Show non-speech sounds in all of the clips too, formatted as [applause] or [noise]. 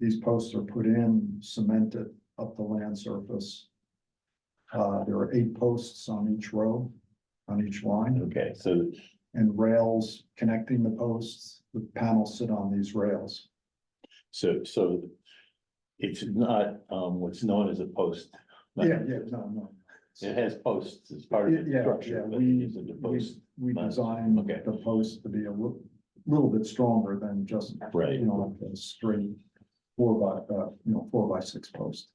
These posts are put in cemented up the land surface. Uh, there are eight posts on each row, on each line, Okay, so and rails connecting the posts, the panels sit on these rails. so so it's not um what's known as a post. not- Yeah, yeah, no, no. It has posts as part of the Yeah, structure, yeah, but we- it isn't a We, post. we not- designed okay. the post to be a little, little bit stronger than just, Right. you know, like a straight four by, uh, you know, four by six post.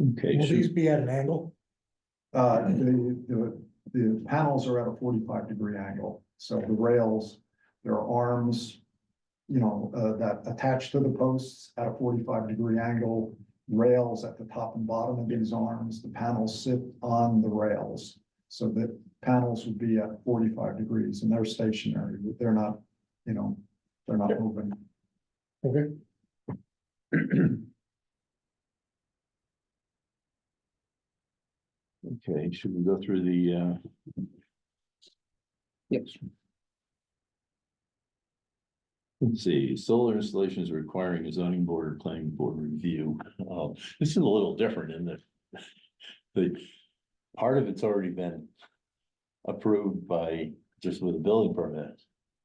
Okay, Will so- these be at an angle? Uh, the, the, the panels are at a forty-five degree angle, so the rails, there are arms. You know, uh, that attach to the posts at a forty-five degree angle, rails at the top and bottom of these arms, the panels sit on the rails. So the panels would be at forty-five degrees and they're stationary, they're not, you know, they're not moving. Okay. okay, should we go through the uh? Yes. Let's see, solar installations requiring a zoning board or planning board review. Uh, this is a little different in that. The part of it's already been approved by just with a building permit,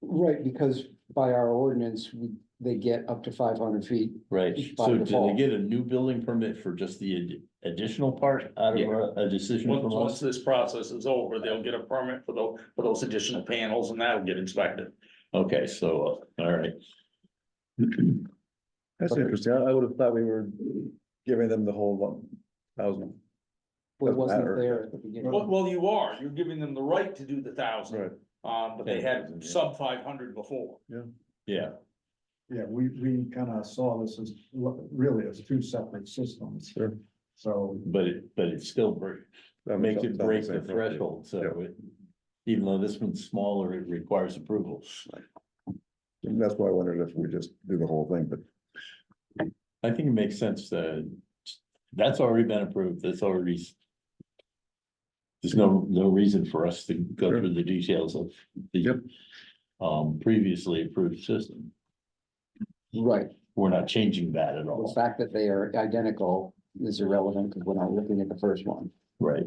Right, because by our ordinance, we- they get up to five hundred feet. right? By So did they default. get a new building permit for just the ad- additional part out of Yeah. a- a decision? Once, from us? once this process is over, they'll get a permit for those, for those additional panels and that'll get inspected. Okay, so, uh, all right. That's Okay. interesting. I, I would have thought we were giving them the whole one thousand. It Doesn't wasn't matter. there at the beginning. Well, well, you are, you're giving them the right to do the Right. thousand, um, but they had sub five hundred before. Yeah, Yeah, we, we kind of saw this as lo- really as two separate systems. Sure. So but it, but it still break, That was makes up- it that break was the it. threshold, so Yeah. it. Even though this one's smaller, it requires approval. And That's why I wondered if we just do the whole thing, but I think it makes sense, uh, that's already been approved, that's already. s- There's no, no reason for us to go Sure. through the details of the. Yep. Um, previously approved system, Right, we're not changing that at the all, fact that they are identical is irrelevant because we're not looking at the first one. right?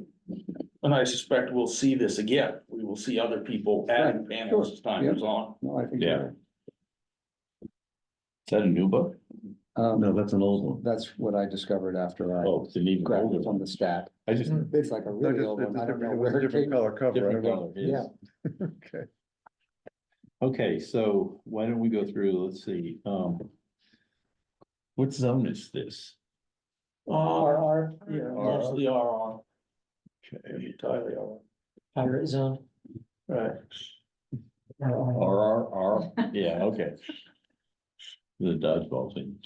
And I suspect we'll see this again. We will see other people adding panels as time goes on. No, I think. Yeah. Is that a new book? Um, that's an old one. that's what I discovered after I Oh, it's an even grabbed older it from one, the stack. I just. It's like a No, really just- old it's one. a I don't know different- it where was a it different came. color cover. I Different don't color, yes. know. [laughs] Okay. Okay, so why don't we go through, let's see, um. What zone is this? Uh, R R, yeah, mostly are on, Okay, entirely are. pirate zone. Right. RR. R R R, yeah, okay. The dodgeball thing.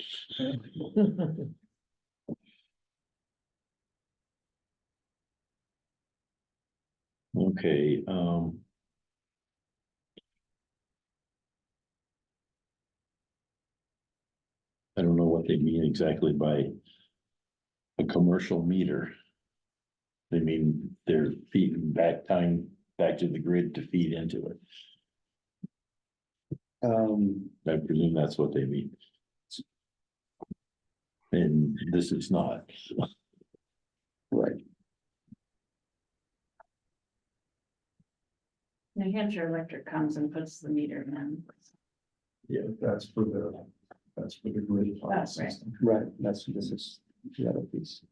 [laughs] Okay, um. I don't know what they mean exactly by. A commercial meter. They mean they're feeding back time, back to the grid to feed into it. Um, I presume that's what they mean. And this is not, right, New Hampshire Electric comes and puts the meter in. that's for the, that's for the grid. file That's right. system. right. That's, this is the other piece.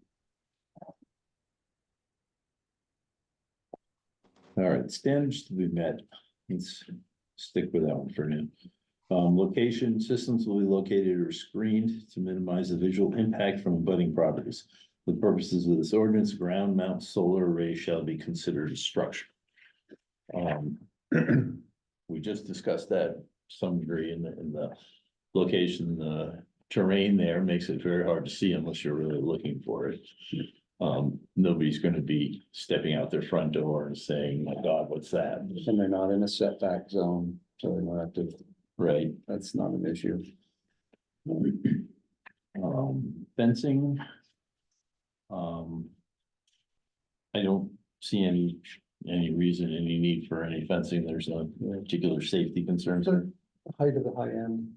all right, standards to be met. Let's stick with that one for now. Um, location systems will be located or screened to minimize the visual impact from abutting properties. For The purposes of this ordinance, ground mount solar array shall be considered a structure. Um, [clears throat] we just discussed that to some degree in the, in the location, the terrain there makes it very hard to see unless you're really looking for it. Um, nobody's gonna be stepping out their front door and saying, my God, what's that? And they're not in a setback zone, so they're not active. Right? That's not an issue. Um, fencing. Um. I don't see any, any reason, any need for any fencing. There's no particular safety concerns. Height of the high end.